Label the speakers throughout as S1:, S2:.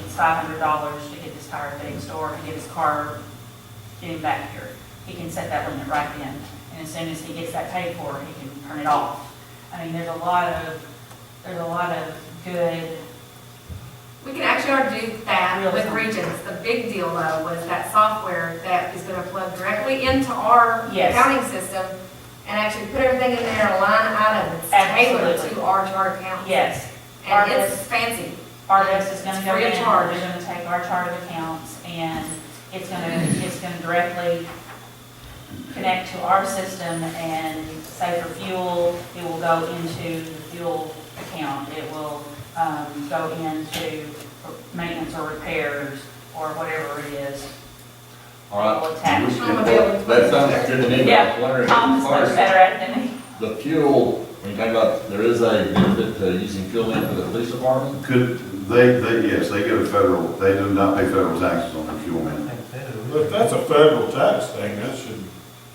S1: five hundred dollars to get his tire fixed or to get his car, get him back here. He can set that limit right then, and as soon as he gets that paid for, he can turn it off. I mean, there's a lot of, there's a lot of good,
S2: We can actually already do that with Regions. The big deal though was that software that is gonna plug directly into our
S1: Yes.
S2: accounting system and actually put everything in there, in a line item, it's tailored
S1: Absolutely.
S2: to our chart account.
S1: yes,
S2: And it's fancy.
S1: RDOS is gonna
S2: It's
S1: go
S2: free
S1: in,
S2: of
S1: they're
S2: charge.
S1: gonna take our chart of accounts, and it's gonna, it's gonna directly connect to our system, and say for fuel, it will go into the fuel account, it will, um, go into maintenance or repairs, or whatever it is.
S3: All right.
S1: Will attach.
S2: Automobile.
S3: That sounds good to me, but I was wondering,
S1: Tom
S3: as
S1: is
S3: far
S1: much
S3: as
S1: better at it than me.
S3: the fuel, when you think about, there is a benefit to using fuel in for the police department?
S4: Could, they, they, yes, they get a federal, they do not pay federal taxes on their fuel man.
S5: But that's a federal tax thing, that should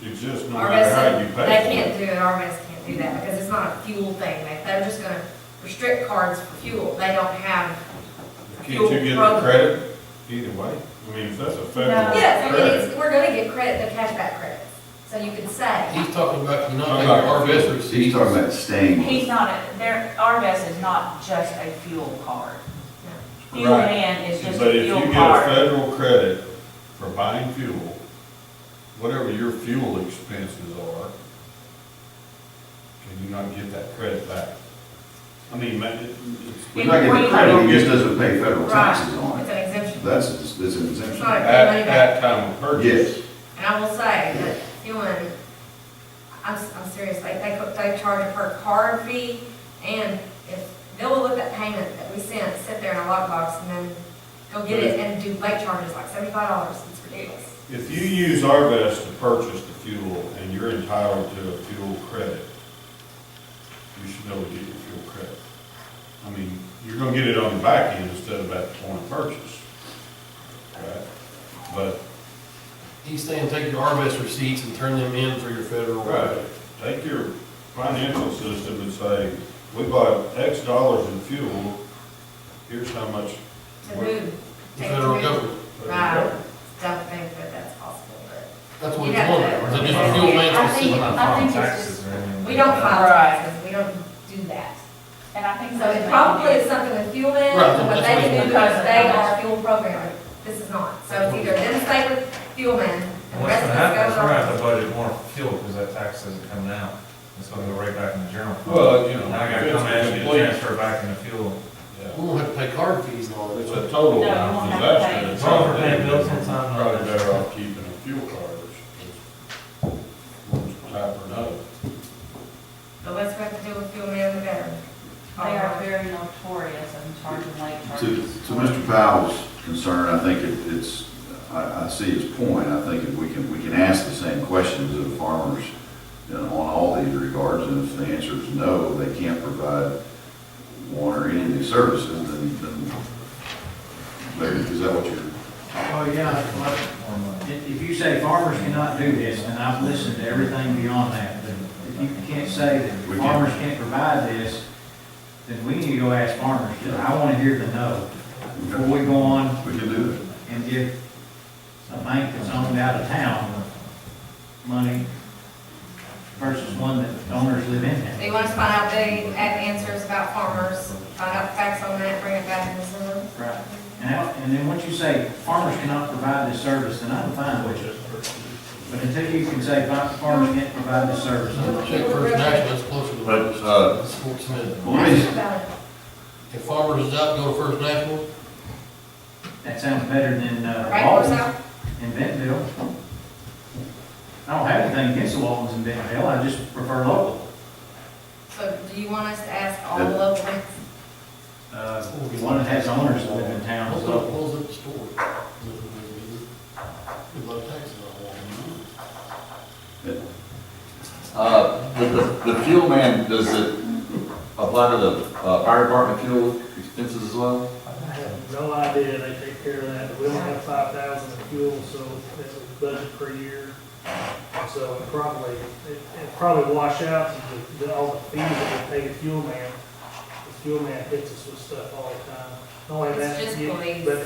S5: exist no
S2: Our
S5: matter how
S2: residents,
S5: you
S2: they
S5: pay
S2: can't do it, our residents can't do that because it's not a fuel thing. They- They're just gonna restrict cards for fuel. They don't have,
S5: for it. Can't you get
S2: Fuel
S5: the credit either way? I mean, if that's a federal
S1: No.
S2: yes, I mean,
S5: credit.
S2: it's, we're gonna get credit, the cashback credits. So you can save.
S6: He's talking about, you know, like
S5: I'm not-
S6: our best receipts.
S4: He's talking about staying.
S1: He's not, a- there, RVS is not just a fuel card.
S5: No.
S1: Fuel
S5: Right.
S1: man is just
S5: But
S1: a
S5: if you
S1: fuel
S5: get a
S1: card.
S5: federal credit for buying fuel, whatever your fuel expenses are, can you not get that credit back? I mean, ma- it-
S4: We're
S5: it's.
S4: not getting credit, he just doesn't pay federal taxes on
S2: It's
S4: it.
S2: an exemption.
S4: That's, that's an exemption.
S2: Right.
S5: At that time of purchase.
S4: Yes,
S2: And I will say that Human, I'm, I'm serious, like, they, they charge a per card fee, and if, they'll look at that payment that we sent, sit there in a lockbox, and then go get it and do late charges, like seventy-five dollars, it's ridiculous.
S5: If you use Arvest to purchase the fuel and you're entitled to a fuel credit, you should be able to get your fuel credit. I mean, you're gonna get it on the back end instead of at the point of purchase. Right? But,
S6: He's saying take your RMS receipts and turn them in for your federal.
S5: right, take your financial system and say, we bought X dollars in fuel, here's how much.
S2: To move.
S6: The federal government.
S2: Right, don't think that that's possible, but
S6: That's what
S2: You
S6: he's
S2: got that.
S6: wondering. Is it just fuel
S2: I
S6: maintenance?
S2: think-
S6: receipts?
S1: I think it's
S7: taxes or anything.
S2: we don't
S7: like that.
S2: file
S1: Right.
S2: taxes, we don't do that.
S1: And I think
S2: So
S1: so.
S2: it probably is something with fuel in,
S6: Right,
S2: but
S6: that's
S2: they can
S6: what it
S2: do
S1: is.
S2: because they are fuel programmer. This is not. So it's either them stay with fuel in, and the
S7: What's
S2: rest
S7: gonna
S2: of us goes
S7: happen is we're gonna have
S2: on.
S7: to budget more for fuel because that tax isn't coming out. It's gonna go right back in the general fund.
S5: Well, you know,
S7: Now I gotta come in and transfer back in the fuel.
S5: Yeah.
S6: We won't have to pay card fees and all
S5: It's
S6: that.
S5: a
S1: No, you
S5: total
S1: won't have to
S5: disaster.
S1: pay.
S5: It's
S7: Well, we're
S5: all
S7: paying
S5: big.
S7: bills on time, though.
S5: Probably better off keeping a fuel card, which is type or no.
S2: The less we have to do with fuel in, the better.
S1: They are very notorious in charging late
S4: to,
S1: charges.
S4: to Mr. Powell's concern, I think it- it's, I, I see his point. I think if we can, we can ask the same questions of farmers, you know, on all these regards, and if the answer is no, they can't provide one or any of these services, then, then, Larry, is that what you're?
S8: Well, yeah, like,
S7: More money.
S8: if if you say farmers cannot do this, and I've listened to everything beyond that, but if you can't say that
S4: We can't.
S8: farmers can't provide this, then we need to go ask farmers, I want to hear the no. Before we go on
S4: We can do it.
S8: and give a bank that's owned out of town money versus one that the owners live in
S2: So
S8: now.
S2: you want us to find out the uh, answers about farmers, find out the facts on that, bring it back in the summer?
S8: Right. And how- and then once you say farmers cannot provide this service, then I'm fine with it. But until you can say farmers can't provide this service, I'm not
S6: Check First National, that's closer to
S3: But, uh,
S6: what Sports Minute.
S4: Well, let me-
S2: About it.
S6: If farmers is out, go to First National,
S8: That sounds better than uh,
S2: Right, or
S8: Walton's
S2: so?
S8: in Bentonville. I don't have anything against the Waltons in Bentonville, I just prefer local.
S2: So do you want us to ask all
S4: Yeah.
S2: the local ones?
S8: Uh, One that has owners that live in town,
S6: what's
S8: is
S6: gonna
S8: local.
S6: close up the store? We love taxes on all of
S3: Uh, with the, the fuel man, does it apply to the, uh, fire department fuel expenses as well?
S9: No idea, they take care of that, but we don't have five thousand in fuel, so that's a budget per year. So it probably, it it'd probably wash out to the, the- all the fees that we pay the fuel man. The fuel man hits us with stuff all the time. Not only
S2: It's
S9: that,
S2: just
S9: you-
S2: police.
S9: but